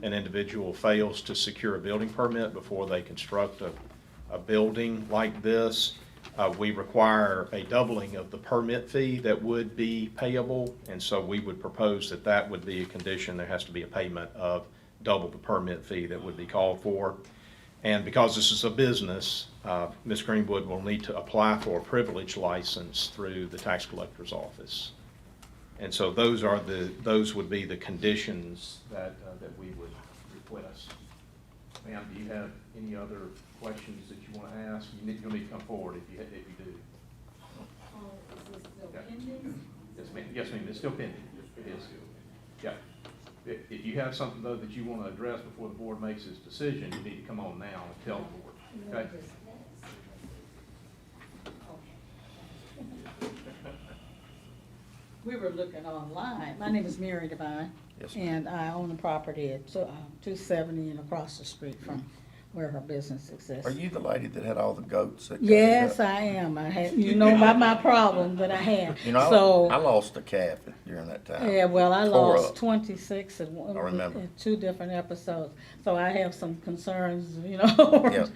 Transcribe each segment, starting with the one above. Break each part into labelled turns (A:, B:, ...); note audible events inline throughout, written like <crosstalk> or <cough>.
A: an individual fails to secure a building permit before they construct a, a building like this, uh, we require a doubling of the permit fee that would be payable. And so we would propose that that would be a condition. There has to be a payment of double the permit fee that would be called for. And because this is a business, uh, Ms. Greenwood will need to apply for a privilege license through the tax collector's office. And so those are the, those would be the conditions that, uh, that we would request. Ma'am, do you have any other questions that you want to ask? You need, you'll need to come forward if you, if you do.
B: Oh, is this still
A: Yeah.
B: pending?
A: Yes, ma'am, yes, ma'am, it's still pending. It is. Yeah. If, if you have something though that you want to address before the board makes its decision, you need to come on now and tell the board, okay?
B: We were looking online. My name is Mary Devine.
A: Yes, ma'am.
B: And I own the property at two seventy and across the street from where her business exists.
C: Are you the lady that had all the goats? That got eat
B: Yes,
C: up?
B: I am. I had, you know about my problem that I had.
C: You know, I-
B: So-
C: I lost a calf during that time.
B: Yeah, well, I
C: Tore
B: lost
C: up.
B: twenty-six in one,
C: I remember.
B: in two different episodes, so I have some concerns, you know. <laughs>
C: Yep.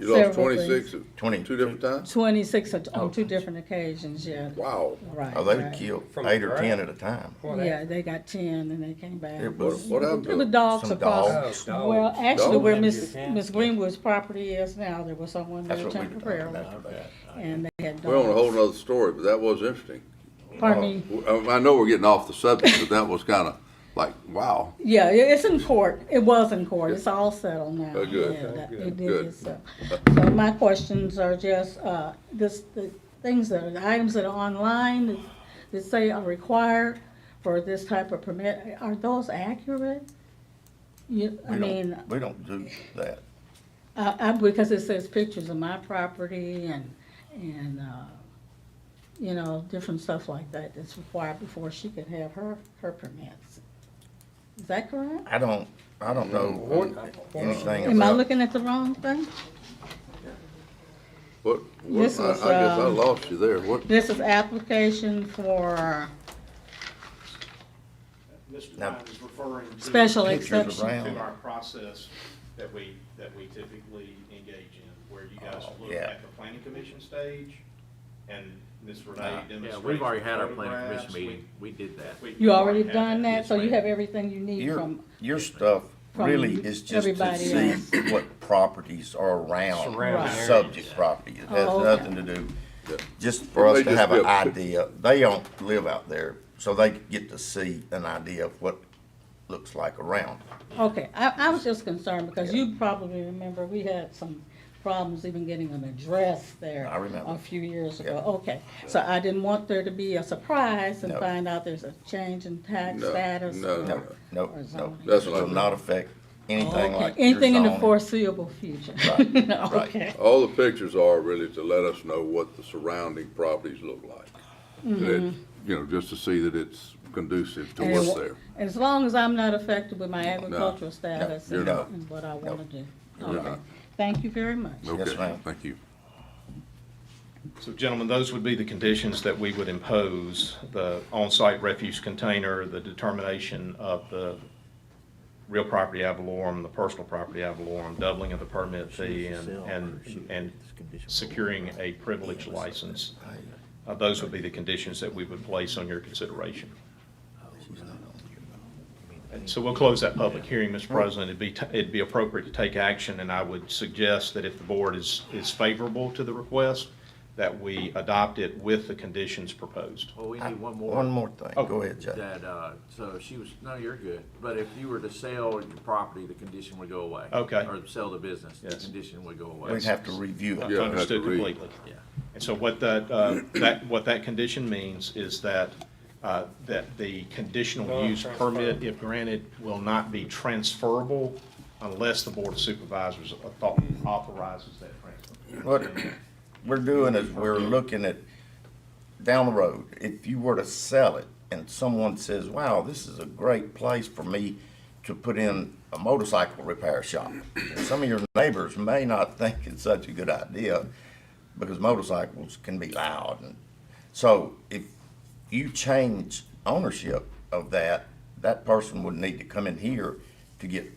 D: You lost
B: several things.
D: twenty-six,
C: Twenty.
D: two different times?
B: Twenty-six on- on two
C: Oh.
B: different occasions, yeah,
D: Wow.
B: right.
C: Oh, they
B: right.
C: would kill
E: From
C: eight or
E: the
C: ten
E: ground.
C: at a time.
B: Yeah, they got ten and they came back.
C: It
D: What,
C: was,
D: what happened?
B: There
D: to
B: were
D: them?
B: dogs
C: Some
B: across,
E: dogs. Dogs.
B: well, actually where
E: Dogs.
B: Miss,
E: Yeah.
B: Miss Greenwood's property is now, there was someone
C: that's
B: there
C: what we were talking
B: temporarily,
C: about today.
B: and they had dogs.
D: We're on a whole nother story, but that was interesting.
B: Pardon me,
D: W- um, I I know we're getting off the subject, but that was kind of like, wow.
B: yeah, it- it's in court, it was in court, it's all settled now.
D: Oh, good.
B: Yeah, that-
E: Okay,
B: It did
D: good.
B: get settled. So my questions are just, uh, this, the things that, are the items that are online that- that say are required for this type of permit, are those accurate? You, I
C: We
B: mean,
C: don't, we don't do that.
B: Uh, I, I, because it says pictures of my property and, and, uh, you know, different stuff like that that's required before she could have her, her permits. Is that correct?
C: I don't, I don't
D: Um,
C: know anything
B: Am I
C: about,
B: looking at the wrong thing?
D: What, what, I I
B: This
D: guess
B: was,
D: I
B: um,
D: lost you there. What,
B: This is application for
A: Mr.
C: Now-
A: Ryan is referring to.
B: special
C: Pictures
B: exception.
C: around.
A: To our process that we, that we typically engage in, where you guys
C: Oh,
A: look
C: yeah.
A: at the planning commission stage and Ms. Renee
C: Yeah,
A: demonstrates.
F: Yeah, we've already had our
A: plan
F: planning commission meeting, we did that.
B: You already done that, so you have everything you need
C: your,
B: from,
C: your stuff
B: from
C: really is just to
B: everybody
C: see what properties are around
E: Surrounding
C: the
B: areas.
C: subject property. It has
B: Oh, okay.
C: nothing to do, just for
D: It
C: us
D: may
C: to
D: just
C: have
D: be
C: an
D: a pic-
C: idea. They don't live out there, so they get to see an idea of what looks like around.
B: okay, I, I was just concerned because you probably remember, we had some problems even getting an address there.
C: I remember.
B: A few years ago,
C: Yeah.
B: okay, so I didn't want there to be a surprise and
C: No.
B: find out there's a change in tax
D: No,
B: status.
D: no,
B: or-
C: No, no,
B: Or
C: no.
B: zoning.
D: That's
C: It
D: what I
C: Will
D: mean.
C: not affect anything
B: Okay,
C: like. your
B: Anything in the
C: zoning.
B: foreseeable future. <laughs>
C: Right, right.
B: Okay,
D: all the pictures are really to let us know what the surrounding properties look like. That- You know, just to see that it's conducive to
B: Mm-hmm. And it
D: what's
B: wa-
D: there.
B: as long as I'm not affected with my agricultural status
D: you're
B: and
C: not.
B: and what I wanna do.
D: You're
B: Okay,
D: not.
B: thank you very much.
C: Yes,
D: Okay,
C: ma'am.
D: thank you.
A: So gentlemen, those would be the conditions that we would impose, the on-site refuse container, the determination of the real property ad valorem, the personal property ad valorem, doubling of the permit fee, and, and, and securing a privilege license. Uh, Those would be the conditions that we would place on your consideration. And so we'll close that public hearing, Mr. President. It'd be, t- it'd be appropriate to take action, and I would suggest that if the board is, is favorable to the request, that we adopt it with the conditions proposed.
F: Well, we need one
C: One
F: more
C: more thing.
D: Oh.
C: Go ahead, Jay.
F: that, uh, so she was, no, you're good. But if you were to sell your property, the condition would go away.
A: Okay.
F: Or sell the business, the
A: Yes.
F: condition would go away.
C: We'd have to review it.
D: Yeah, I had to
A: Understood
D: read.
A: completely.
F: Yeah.
A: And so what that, uh, that, what that condition means is that, uh, that the conditional use permit, if granted, will not be transferable unless the Board of Supervisors author- authorizes that transfer.
C: What we're doing is we're looking at down the road, if you were to sell it and someone says, wow, this is a great place for me to put in a motorcycle repair shop. And Some of your neighbors may not think it's such a good idea because motorcycles can be loud. And So if you change ownership of that, that person would need to come in here to get